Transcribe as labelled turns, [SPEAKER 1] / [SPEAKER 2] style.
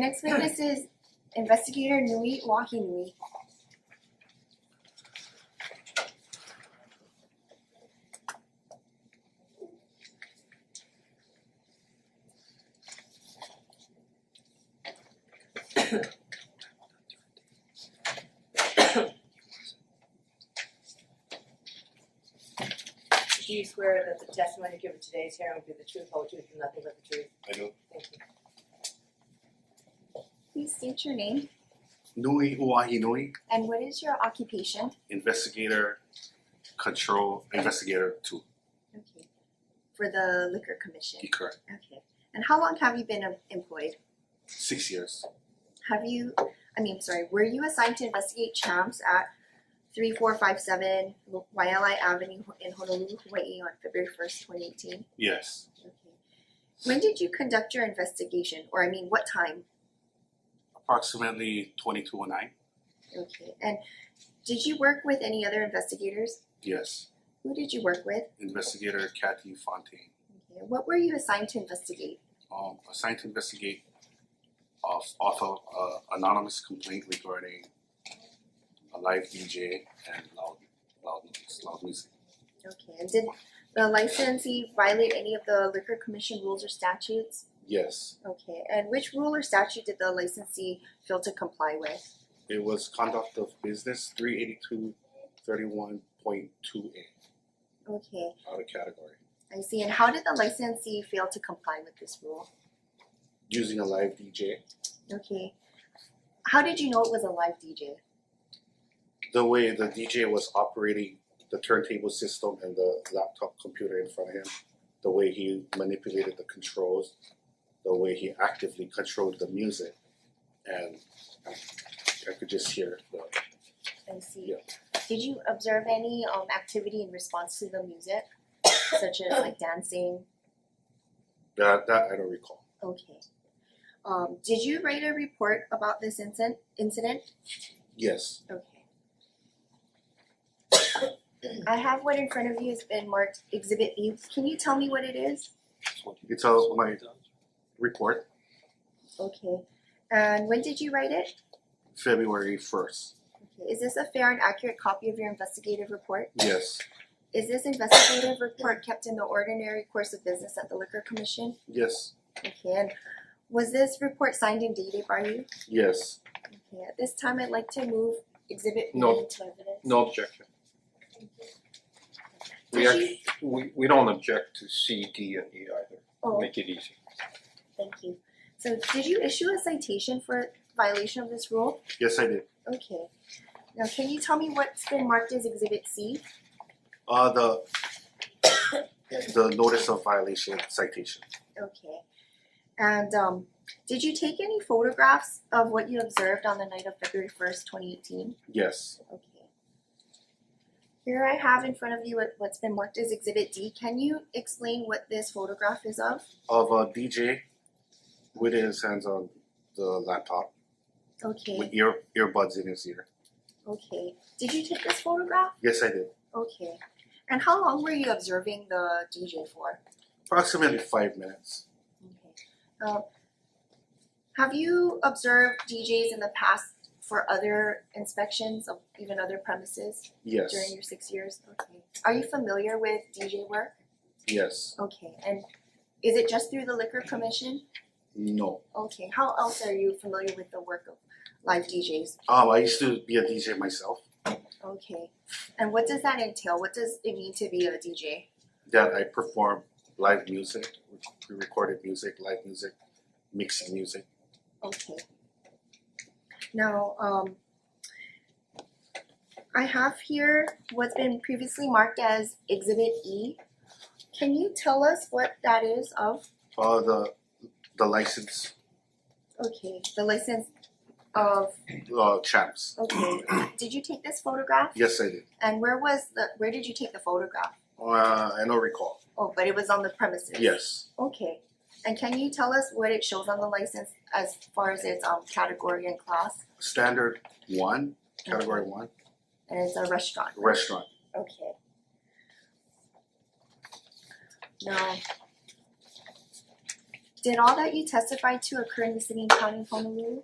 [SPEAKER 1] Next witness is investigator Nui Wahi Nui.
[SPEAKER 2] Do you swear that the testimony given today's hearing will be the truth, whole truth, and nothing but the truth?
[SPEAKER 3] I do.
[SPEAKER 2] Thank you.
[SPEAKER 1] Please state your name
[SPEAKER 3] Nui Uahi Nui,
[SPEAKER 1] and what is your occupation?
[SPEAKER 3] investigator, control, investigator two.
[SPEAKER 1] Okay. For the liquor commission.
[SPEAKER 3] He correct.
[SPEAKER 1] Okay. And how long have you been em- employed?
[SPEAKER 3] Six years.
[SPEAKER 1] Have you, I mean, sorry, were you assigned to investigate champs at three four five seven Wailea Avenue in Honolulu, Hawaii on February first, twenty eighteen?
[SPEAKER 3] Yes.
[SPEAKER 1] Okay. When did you conduct your investigation, or I mean, what time?
[SPEAKER 3] Approximately twenty two oh nine.
[SPEAKER 1] Okay, and did you work with any other investigators?
[SPEAKER 3] Yes.
[SPEAKER 1] Who did you work with?
[SPEAKER 3] Investigator Kathy Fontaine.
[SPEAKER 1] Okay. What were you assigned to investigate?
[SPEAKER 3] Um assigned to investigate of author uh anonymous complaint regarding a live DJ and loud loud noise, loud music.
[SPEAKER 1] Okay, and did the licensee violate any of the liquor commission rules or statutes?
[SPEAKER 3] Yes.
[SPEAKER 1] Okay, and which rule or statute did the licensee fail to comply with?
[SPEAKER 3] It was conduct of business three eighty two thirty one point two A
[SPEAKER 1] Okay,
[SPEAKER 3] out of category.
[SPEAKER 1] I see, and how did the licensee fail to comply with this rule?
[SPEAKER 3] Using a live DJ.
[SPEAKER 1] Okay, how did you know it was a live DJ?
[SPEAKER 3] the way the DJ was operating the turntable system and the laptop computer in front of him, the way he manipulated the controls, the way he actively controlled the music, and I I could just hear the
[SPEAKER 1] I see. Did you observe any um activity in response to the music, such as like dancing?
[SPEAKER 3] that that I don't recall.
[SPEAKER 1] Okay. Um, did you write a report about this incident? Incident?
[SPEAKER 3] Yes,
[SPEAKER 1] Okay. I have what in front of you has been marked Exhibit B. Can you tell me what it is?
[SPEAKER 3] it's a my report
[SPEAKER 1] Okay. And when did you write it?
[SPEAKER 3] February first.
[SPEAKER 1] Okay. Is this a fair and accurate copy of your investigative report?
[SPEAKER 3] Yes,
[SPEAKER 1] Is this investigative report kept in the ordinary course of business at the Liquor Commission?
[SPEAKER 3] yes,
[SPEAKER 1] Okay, and was this report signed and dated by you?
[SPEAKER 3] yes.
[SPEAKER 1] Okay, at this time, I'd like to move exhibit B to
[SPEAKER 4] No.
[SPEAKER 1] evidence.
[SPEAKER 4] No objection. We
[SPEAKER 1] Did you,
[SPEAKER 4] actually, we we don't object to C, D and E either,
[SPEAKER 1] oh,
[SPEAKER 4] make it easy.
[SPEAKER 1] thank you. So did you issue a citation for violation of this rule?
[SPEAKER 3] Yes, I did.
[SPEAKER 1] Okay. Now, can you tell me what's been marked as exhibit C?
[SPEAKER 3] Uh, the the notice of violation citation.
[SPEAKER 1] Okay. And um, did you take any photographs of what you observed on the night of February first, twenty eighteen?
[SPEAKER 3] Yes,
[SPEAKER 1] Okay. Here I have in front of you what- what's been marked as exhibit D. Can you explain what this photograph is of?
[SPEAKER 3] of a DJ with his hands on the laptop.
[SPEAKER 1] Okay,
[SPEAKER 3] with ear earbuds in his ear.
[SPEAKER 1] okay. Did you take this photograph?
[SPEAKER 3] Yes, I did.
[SPEAKER 1] Okay. And how long were you observing the DJ for?
[SPEAKER 3] Approximately five minutes.
[SPEAKER 1] Okay. Um, have you observed DJs in the past for other inspections of even other premises
[SPEAKER 3] Yes.
[SPEAKER 1] during your six years? Okay. Are you familiar with DJ work?
[SPEAKER 3] Yes.
[SPEAKER 1] Okay. And is it just through the liquor commission?
[SPEAKER 3] No.
[SPEAKER 1] Okay. How else are you familiar with the work of live DJs?
[SPEAKER 3] Um, I used to be a DJ myself.
[SPEAKER 1] Okay. And what does that entail? What does it mean to be a DJ?
[SPEAKER 3] That I perform live music, pre-recorded music, live music, mixing music.
[SPEAKER 1] Okay. Now, um, I have here what's been previously marked as Exhibit E. Can you tell us what that is of?
[SPEAKER 3] Uh, the the license
[SPEAKER 1] Okay, the license of,
[SPEAKER 3] uh, champs.
[SPEAKER 1] okay, did you take this photograph?
[SPEAKER 3] Yes, I did.
[SPEAKER 1] And where was the, where did you take the photograph?
[SPEAKER 3] Uh, I don't recall.
[SPEAKER 1] Oh, but it was on the premises?
[SPEAKER 3] Yes.
[SPEAKER 1] Okay, and can you tell us what it shows on the license as far as its, um, category and class?
[SPEAKER 3] Standard one, category one,
[SPEAKER 1] And it's a restaurant?
[SPEAKER 3] restaurant.
[SPEAKER 1] Okay. Now, Did all that you testified to occur in the city and county of Honolulu?